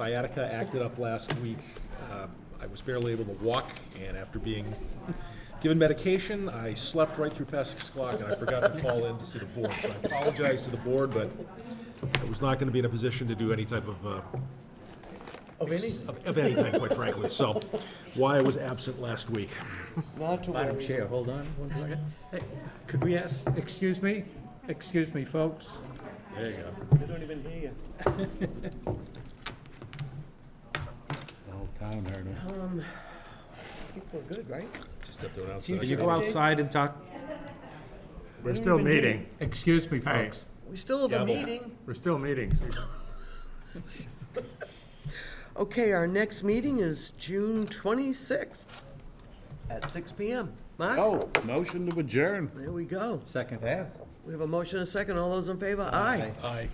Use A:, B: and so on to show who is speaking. A: Sciatica acted up last week. Um, I was barely able to walk, and after being given medication, I slept right through past six o'clock, and I forgot to call in to see the board. So I apologize to the board, but I was not going to be in a position to do any type of, uh,
B: Of any?
A: of of anything, quite frankly. So why I was absent last week.
B: Not to
C: Madam
B: worry.
C: Chair, hold on one second. Hey, Could we ask, excuse me, excuse me, folks?
A: There you go.
B: We don't even hear you.
D: The whole town heard him.
B: I think we're Um, good, right?
A: Just have to announce
B: Future
A: that.
D: Go outside and talk.
B: We
E: We're
B: don't
E: still
B: even need
E: meeting,
C: Excuse me,
E: Hey.
C: folks.
B: We still have a
A: Gavel.
B: meeting.
E: we're still meeting.
B: Okay, our next meeting is June twenty-sixth at six P M. Mark,
D: Oh, motion to adjourn.
B: there we go.
C: Second.
B: We have a motion and a second. All those in favor? Aye.
A: Aye.